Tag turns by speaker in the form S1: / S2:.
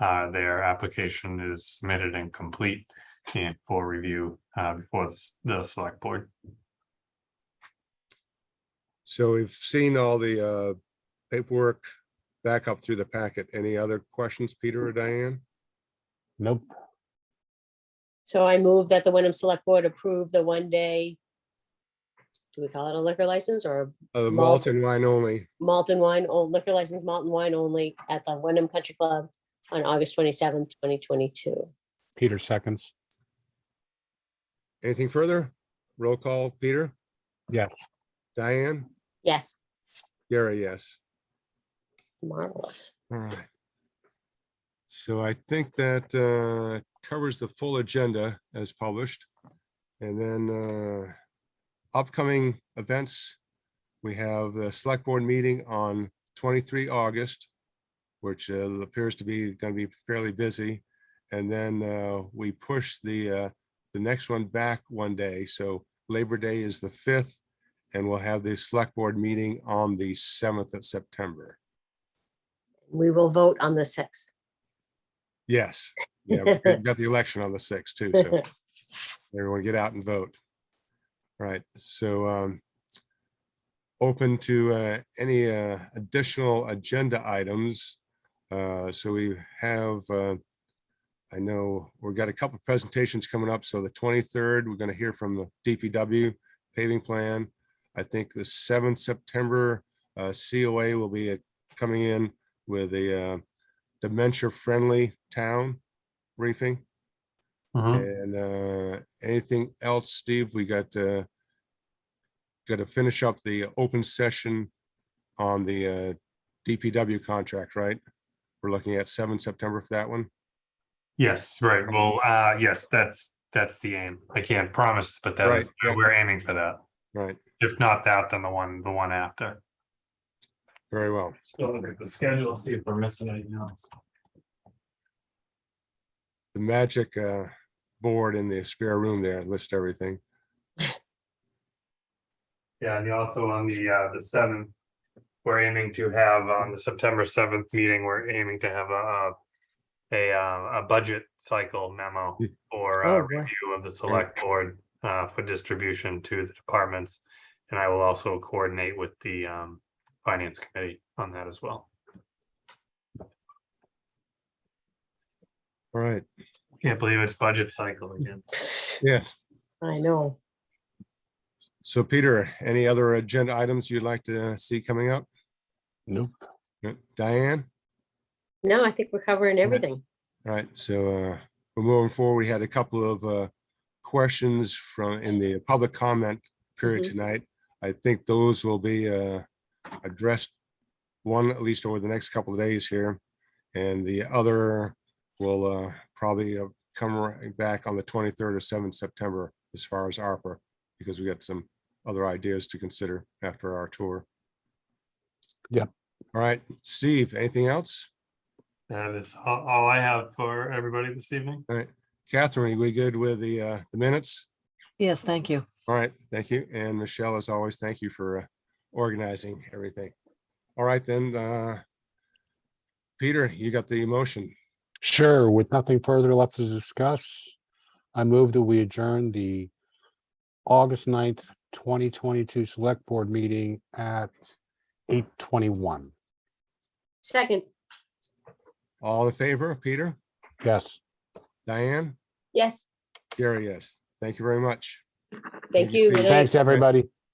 S1: uh, their application is submitted and complete and for review uh, before the s- the select board.
S2: So we've seen all the uh, paperwork back up through the packet. Any other questions, Peter or Diane?
S3: Nope.
S4: So I move that the Wyndham Select Board approve the one-day, do we call it a liquor license or
S2: Uh, Malt
S4: Malt.
S2: and wine only.
S4: malt and wine, or liquor license, malt and wine only at the Wyndham Country Club on August twenty-seventh, twenty twenty-two?
S3: Peter seconds.
S2: Anything further? Roll call, Peter?
S3: Yes.
S2: Diane?
S4: Yes,
S2: Gary, yes.
S4: marvelous.
S2: All right. So I think that uh, covers the full agenda as published. And then uh, upcoming events, we have the select board meeting on 23 August, which uh, appears to be going to be fairly busy. And then uh, we push the, uh, the next one back one day. So Labor Day is the 5th, and we'll have the select board meeting on the 7th of September.
S4: We will vote on the sixth.
S2: Yes. Yeah, we- we've got the election on the sixth too, so everyone get out and vote. All Right, so um open to uh any uh additional agenda items. Uh So we have, uh I know we've got a couple of presentations coming up. So the twenty-third, we're going to hear from the DPW paving plan. I think the seventh September, uh COA will be uh, coming in with a uh, dementia-friendly town briefing.
S1: Mhm.
S2: And uh, anything else, Steve? We got uh, got to finish up the open session on the uh, DPW contract, right? We're looking at seven September for that one.
S1: Yes, right. Well, uh, yes, that's, that's the aim. I can't promise, but that is,
S2: Right.
S1: we're aiming for that.
S2: Right,
S1: If not that, then the one, the one after.
S2: very well.
S1: Still look at the schedule, see if we're missing anything else.
S2: The magic uh, board in the spare room there list everything.
S1: Yeah, and also on the, uh, the seventh, we're aiming to have on the September seventh meeting, we're aiming to have a, a a, uh, a budget cycle memo for
S4: Oh,
S1: uh,
S4: boy.
S1: review of the select board, uh, for distribution to the departments. And I will also coordinate with the, um, finance committee on that as well.
S2: All right,
S1: Can't believe it's budget cycle again.
S2: yes.
S4: I know.
S2: So Peter, any other agenda items you'd like to see coming up?
S3: Nope.
S2: No? Diane?
S4: No, I think we're covering everything.
S2: All Right, so uh, we're moving forward. We had a couple of uh, questions from, in the public comment period
S4: Mhm.
S2: tonight. I think those will be uh, addressed, one at least over the next couple of days here. And the other will uh, probably uh, come right back on the 23rd or 7th September as far as ARPA, because we got some other ideas to consider after our tour.
S3: Yep.
S2: All right, Steve, anything else?
S1: That is a- all I have for everybody this evening.
S2: All right, Catherine, we good with the uh, the minutes?
S5: Yes, thank you.
S2: All right, thank you. And Michelle, as always, thank you for uh, organizing everything. All right, then, uh, Peter, you got the motion.
S3: Sure, with nothing further left to discuss, I move that we adjourn the August 9th, twenty twenty-two select board meeting at eight twenty-one.
S4: Second,
S2: All in favor, Peter,
S3: Yes,
S2: Diane,
S4: yes,
S2: Gary, yes. Thank you very much.
S4: thank
S2: you,
S4: you.
S2: Steve.
S4: Good night.
S3: thanks, everybody.